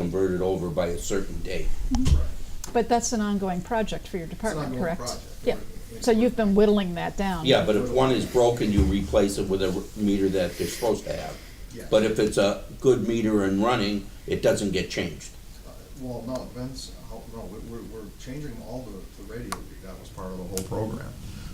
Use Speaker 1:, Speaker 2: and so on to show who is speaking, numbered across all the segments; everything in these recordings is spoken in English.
Speaker 1: converted over by a certain date.
Speaker 2: But that's an ongoing project for your department,
Speaker 3: ongoing
Speaker 2: correct?
Speaker 3: project.
Speaker 2: Yeah, so you've been whittling that down.
Speaker 1: Yeah, but if one is broken, you replace it with a meter that they're supposed to have.
Speaker 3: Yes.
Speaker 1: But if it's a good meter and running, it doesn't get changed.
Speaker 3: Uh, Well, no, Vince, how- no, we- we're, we're changing all the, the radio, read. that was part of the whole program,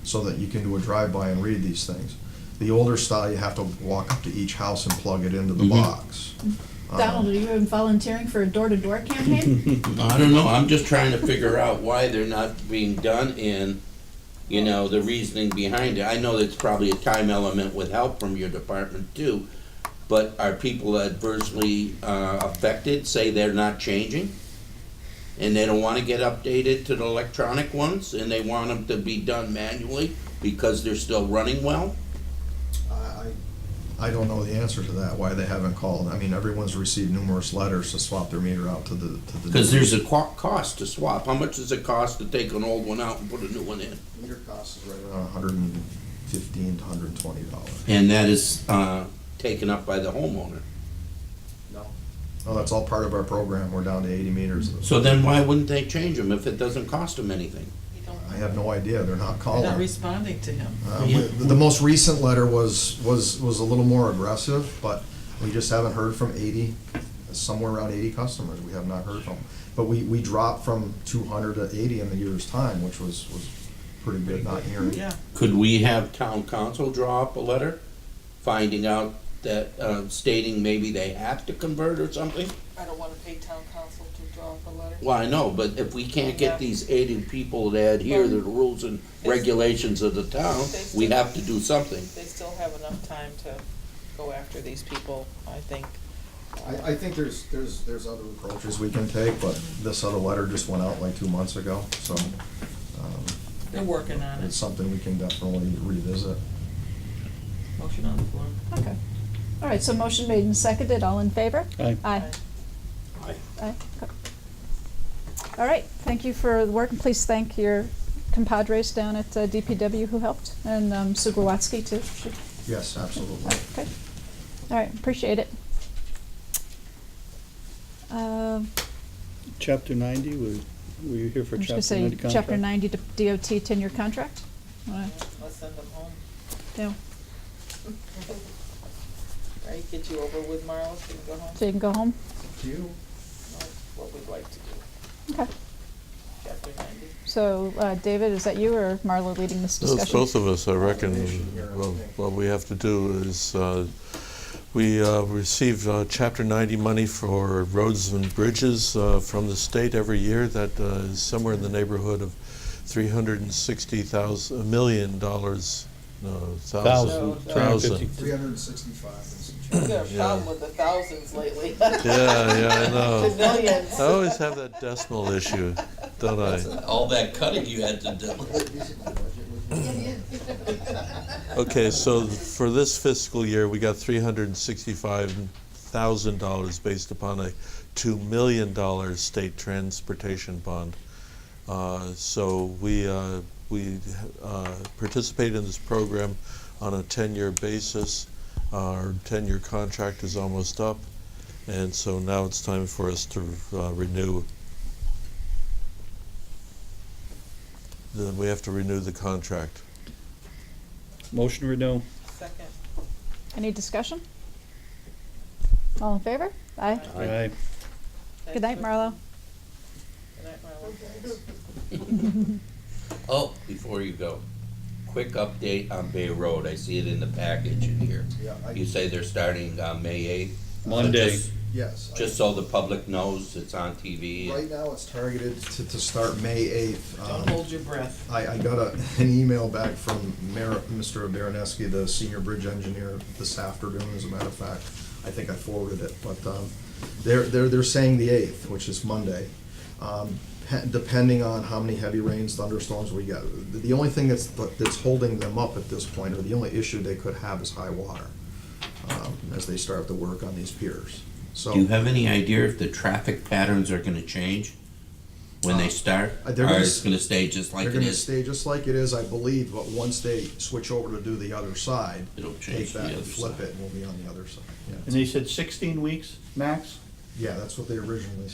Speaker 3: so that you can do a drive-by and read these things. The older style, you have to walk up to each house and plug it
Speaker 1: Mm-hmm.
Speaker 3: into the box. Um,
Speaker 2: Donald, are you even volunteering for a door-to-door campaign?
Speaker 1: I don't know, I'm just trying to figure out why they're not being done and, you know, the reasoning behind it. I know that's probably a time element with help from your department too, but are people adversely uh, affected, say they're not changing? And they don't want to get updated to the electronic ones and they want them to be done manually because they're still running well?
Speaker 3: I, I, I don't know the answer to that, why they haven't called. I mean, everyone's received numerous letters to swap their meter out to the, to the.
Speaker 1: Because there's a co- cost to swap. How much does it cost to take an old one out and put a new one in?
Speaker 3: Meter cost is right around hundred and fifteen to hundred and twenty dollars.
Speaker 1: And that is uh, taken up by the homeowner.
Speaker 3: No. No, that's all part of our program, we're down to eighty meters.
Speaker 1: So then why wouldn't they change them if it doesn't cost them anything?
Speaker 3: I have no idea, they're not
Speaker 4: They're
Speaker 3: calling.
Speaker 4: not responding to him.
Speaker 3: Uh, we- The most recent letter was, was, was a little more aggressive, but we just haven't heard from eighty, somewhere around eighty customers, we have not heard from. But we, we dropped from two hundred to eighty in the year's time, which was, was pretty good not hearing.
Speaker 4: Yeah,
Speaker 1: Could we have town council draw up a letter finding out that, uh, stating maybe they have to convert or something?
Speaker 5: I don't wanna pay town council to draw up a letter.
Speaker 1: Well, I know, but if we can't get
Speaker 5: Yeah.
Speaker 1: these eighty people to adhere to the rules and regulations of the town, we have to do something.
Speaker 5: They still have enough time to go after these people, I think.
Speaker 3: I, I think there's, there's, there's other approaches we can take, but this other letter just went out like two months ago, so, um,
Speaker 4: they're working on
Speaker 3: it's
Speaker 4: it.
Speaker 3: something we can definitely revisit.
Speaker 4: Motion on the floor.
Speaker 2: Okay. All right, so motion made and seconded, all in favor?
Speaker 6: Aye.
Speaker 2: Aye. Aye. All right, thank you for the work, and please thank your compadres down at uh, DPW who helped, and um, Sue Grawatsky too. She-
Speaker 3: Yes, absolutely.
Speaker 2: Okay. All right, appreciate it. Um,
Speaker 6: Chapter 90, were were you here for
Speaker 2: I'm just gonna
Speaker 6: chapter
Speaker 2: say,
Speaker 6: 90 contract?
Speaker 2: chapter ninety d- DOT ten-year contract? Uh, Wanna-
Speaker 5: Let's send them home,
Speaker 2: yeah,
Speaker 5: right? Get you over with, Marla, so you can go home.
Speaker 2: So you can go home?
Speaker 3: Do you,
Speaker 5: That's what we'd like to do,
Speaker 2: Okay,
Speaker 5: chapter ninety.
Speaker 2: so, uh, David, is that you or Marla leading this
Speaker 7: It's
Speaker 2: discussion?
Speaker 7: both of us, I reckon.
Speaker 3: Combination here, I
Speaker 7: Well,
Speaker 3: think.
Speaker 7: What we have to do is, uh, we uh, receive uh, Chapter 90 money for roads and bridges uh, from the state every year. That uh, is somewhere in the neighborhood of 360,000, a million dollars, no, thousand.
Speaker 6: Thousand,
Speaker 5: Thousand.
Speaker 6: two hundred and fifty.
Speaker 3: three hundred and sixty-five and some change.
Speaker 5: We got a problem with the thousands lately. The
Speaker 7: Yeah, yeah, I know.
Speaker 5: millions.
Speaker 7: I always have that decimal issue, don't I?
Speaker 1: All that cutting you had to do.
Speaker 7: Okay, so for this fiscal year, we got three hundred and sixty-five thousand dollars based upon a two million dollar state transportation bond. Uh, So we, uh, we uh, participate in this program on a ten-year basis. Our ten-year contract is almost up, and so now it's time for us to uh, renew. Then we have to renew the contract.
Speaker 6: Motion renew.
Speaker 5: Second,
Speaker 2: Any discussion? All in favor? Aye.
Speaker 6: Aye.
Speaker 2: Good night, Marlo.
Speaker 5: good night, Marla.
Speaker 1: Oh, before you go, quick update on Bay Road. I see it in the package in here.
Speaker 3: Yeah,
Speaker 1: You
Speaker 3: I,
Speaker 1: say they're starting on May eighth?
Speaker 6: Monday.
Speaker 3: yes. I-
Speaker 1: Just so the public knows, it's on TV.
Speaker 3: Right now, it's targeted to, to start May eighth. Um,
Speaker 4: Don't hold your breath.
Speaker 3: I, I got a, an email back from Mayor, Mr. Baraneski, the senior bridge engineer, this afternoon, as a matter of fact. I think I forwarded it, but, um, they're, they're, they're saying the eighth, which is Monday. Um, pe- depending on how many heavy rains, thunderstorms we get, the, the only thing that's, that's holding them up at this point, or the only issue they could have is high water, um, as they start to work on these piers, so.
Speaker 1: Do you have any idea if the traffic patterns are gonna change when they start?
Speaker 3: Uh, they're gonna
Speaker 1: Or
Speaker 3: s-
Speaker 1: it's gonna stay just like
Speaker 3: They're
Speaker 1: it
Speaker 3: gonna
Speaker 1: is?
Speaker 3: stay just like it is, I believe, but once they switch over to do the other side,
Speaker 1: It'll change
Speaker 3: take
Speaker 1: to
Speaker 3: that
Speaker 1: the
Speaker 3: and
Speaker 1: other
Speaker 3: flip
Speaker 1: side.
Speaker 3: it, and we'll be on the other side, yeah.
Speaker 6: And they said 16 weeks max?
Speaker 3: Yeah, that's what they originally